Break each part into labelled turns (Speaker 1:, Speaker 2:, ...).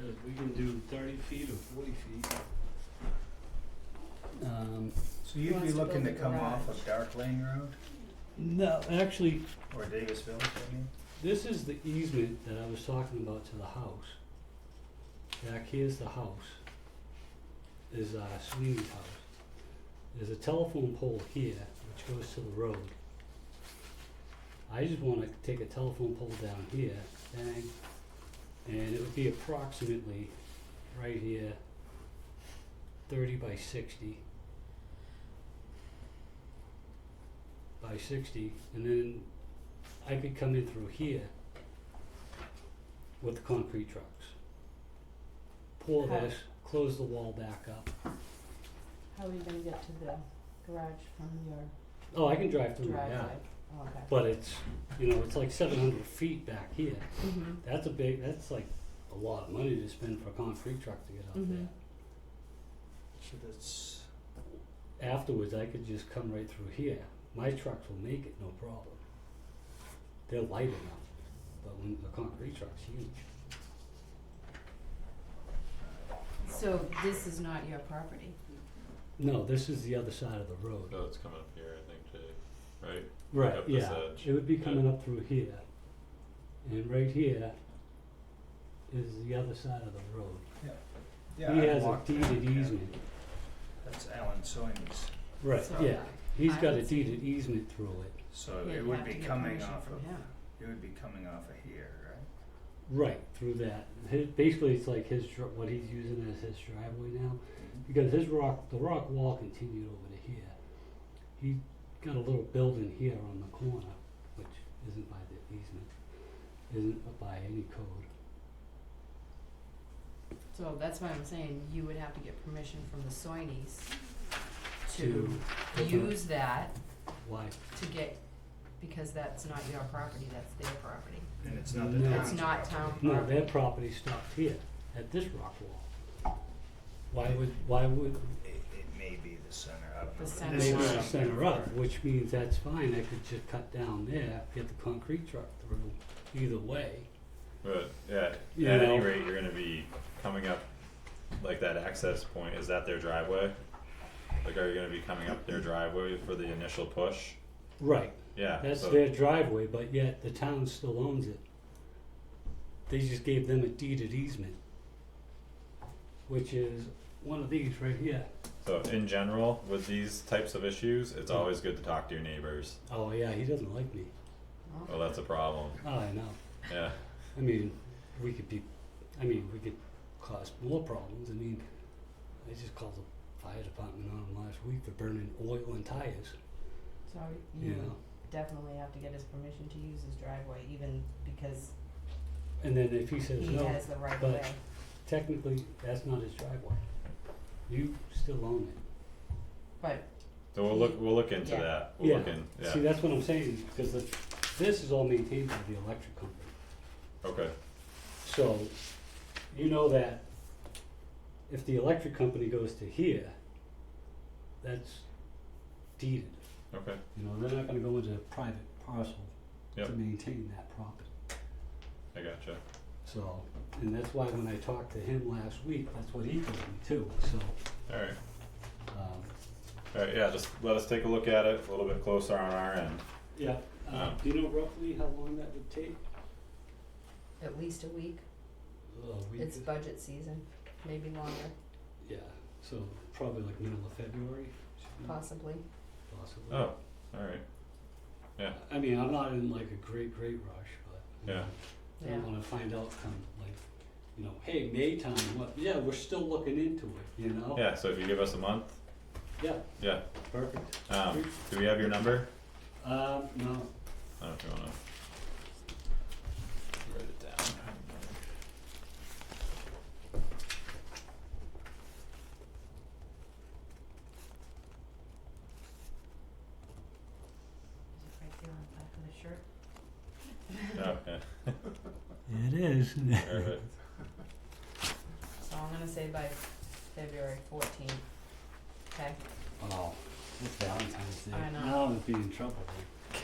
Speaker 1: if we can do thirty feet or forty feet.
Speaker 2: Um,
Speaker 3: So
Speaker 4: He
Speaker 3: you'd be
Speaker 4: wants to
Speaker 3: looking to
Speaker 4: build a
Speaker 3: come off
Speaker 4: garage.
Speaker 3: of Dark Lane Road
Speaker 2: no, actually,
Speaker 3: or Davis Village, I mean?
Speaker 2: this is the easement that I was talking about to the house. Back here's the house. Is uh Sweeney's house. There's a telephone pole here which goes to the road. I just wanna take a telephone pole down here, bang, and it would be approximately right here, thirty by sixty. By sixty, and then I could come in through here with the concrete trucks. Pour
Speaker 4: How-
Speaker 2: this, close the wall back up.
Speaker 4: How are you gonna get to the garage from your
Speaker 2: Oh, I can drive through, yeah.
Speaker 4: driveway? Oh, Okay.
Speaker 2: But it's, you know, it's like seven hundred feet back here.
Speaker 4: Mm-hmm.
Speaker 2: That's a big, that's like a lot of money to spend for a concrete truck to get up
Speaker 4: Mhm.
Speaker 3: So that's,
Speaker 2: there. Afterwards, I could just come right through here. My trucks will make it, no problem. They're light enough, but when the concrete truck's huge.
Speaker 4: So this is not your property?
Speaker 2: No, this is the other side of the road.
Speaker 5: Oh, it's coming up here, I think, Jay, right?
Speaker 2: Right,
Speaker 5: up this
Speaker 2: yeah,
Speaker 5: edge.
Speaker 2: it would be
Speaker 5: Yeah.
Speaker 2: coming up through here. And right here is the other side of the road.
Speaker 3: yeah,
Speaker 2: He
Speaker 3: I
Speaker 2: has a
Speaker 3: walked that,
Speaker 2: deeded
Speaker 3: yeah.
Speaker 2: easement.
Speaker 3: That's Alan Soines,
Speaker 2: Right,
Speaker 4: So
Speaker 2: yeah, he's
Speaker 4: I
Speaker 2: got a
Speaker 4: would see-
Speaker 2: deeded easement through it.
Speaker 3: so
Speaker 4: Yeah,
Speaker 3: it
Speaker 4: you
Speaker 3: would
Speaker 4: have
Speaker 3: be
Speaker 4: to get
Speaker 3: coming
Speaker 4: permission
Speaker 3: off
Speaker 4: from
Speaker 3: of,
Speaker 4: him.
Speaker 3: it would be coming off of here, right?
Speaker 2: Right, through that. His, basically, it's like his, dr- what he's using as his driveway now, because his rock, the rock wall continued over to here. He got a little building here on the corner, which isn't by the easement, isn't by any code.
Speaker 4: So that's why I'm saying you would have to get permission from the Soinis
Speaker 2: To
Speaker 4: to
Speaker 2: open up
Speaker 4: use that
Speaker 2: why,
Speaker 4: to get, because that's not your property, that's their property.
Speaker 3: And it's not the
Speaker 2: No.
Speaker 3: town's
Speaker 4: It's not town
Speaker 3: property.
Speaker 2: no,
Speaker 4: property.
Speaker 2: their property stopped here, at this rock wall. Why would, why would,
Speaker 3: It, it may be the center of it.
Speaker 4: The
Speaker 3: but
Speaker 4: center
Speaker 3: this
Speaker 2: Maybe
Speaker 4: Maybe
Speaker 3: is
Speaker 4: line.
Speaker 3: something
Speaker 2: center up,
Speaker 3: for-
Speaker 2: which means that's fine, I could just cut down there, get the concrete truck through, either way.
Speaker 5: But yeah,
Speaker 2: You
Speaker 5: at any
Speaker 2: know.
Speaker 5: rate, you're gonna be coming up, like that access point, is that their driveway? Like, are you gonna be coming up their driveway for the initial push?
Speaker 2: Right,
Speaker 5: Yeah,
Speaker 2: that's
Speaker 5: so-
Speaker 2: their driveway, but yet the town still owns it. They just gave them a deeded easement, which is one of these right here.
Speaker 5: So in general, with these types of issues, it's
Speaker 2: Yeah.
Speaker 5: always good to talk to your neighbors.
Speaker 2: Oh, yeah, he doesn't like me.
Speaker 4: Oh.
Speaker 5: Well, that's a problem.
Speaker 2: Oh, I know.
Speaker 5: Yeah.
Speaker 2: I mean, we could be, I mean, we could cause more problems. I mean, I just called the fire department on him last week for burning oil and tires,
Speaker 4: So
Speaker 2: you
Speaker 4: you
Speaker 2: know?
Speaker 4: definitely have to get his permission to use his driveway, even because
Speaker 2: And then if he says
Speaker 4: he
Speaker 2: no,
Speaker 4: has the right of
Speaker 2: but-
Speaker 4: way.
Speaker 2: technically, that's not his driveway. You still own it.
Speaker 4: But
Speaker 5: So we'll look, we'll look into
Speaker 4: Yeah.
Speaker 5: that. We'll look
Speaker 2: Yeah.
Speaker 5: in,
Speaker 2: See,
Speaker 5: yeah,
Speaker 2: that's what I'm saying, because the, this is all maintained by the electric company.
Speaker 5: okay,
Speaker 2: So, you know that if the electric company goes to here, that's deeded.
Speaker 5: okay,
Speaker 2: You know, they're not gonna go into a private parcel to
Speaker 5: Yep.
Speaker 2: maintain that property.
Speaker 5: I gotcha.
Speaker 2: So, and that's why when I talked to him last week, that's what he told me too, so,
Speaker 5: Alright,
Speaker 2: um,
Speaker 5: alright, yeah, just let us take a look at it a little bit closer on our end.
Speaker 2: yeah. Uh,
Speaker 5: Um,
Speaker 2: do you know roughly how long that would take?
Speaker 4: at least a week,
Speaker 2: A week.
Speaker 4: it's
Speaker 2: is-
Speaker 4: budget season, maybe longer,
Speaker 2: Yeah, so probably like middle of February, should be
Speaker 4: possibly.
Speaker 2: possibly.
Speaker 5: Oh, alright, yeah.
Speaker 2: I mean, I'm not in like a great, great rush, but. you
Speaker 5: Yeah.
Speaker 2: know, I
Speaker 4: Yeah.
Speaker 2: don't wanna find out come like, you know, hey, May time, what, yeah, we're still looking into it, you know?
Speaker 5: Yeah, so if you give us a month,
Speaker 2: Yeah,
Speaker 5: yeah,
Speaker 2: perfect.
Speaker 5: um, do we have your number?
Speaker 2: Um, no,
Speaker 5: I don't know if you wanna. Write it down.
Speaker 4: Is it right there on the back of the shirt?
Speaker 5: Okay,
Speaker 2: It is.
Speaker 5: perfect,
Speaker 4: So I'm gonna say by February fourteenth, okay?
Speaker 2: Oh, it's Valentine's Day.
Speaker 4: I know.
Speaker 2: Now I'd be in trouble.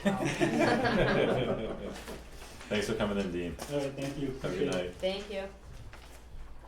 Speaker 4: Well,
Speaker 5: thanks for coming in, Dean,
Speaker 2: Alright, thank you.
Speaker 5: have a good night.
Speaker 4: Thank you.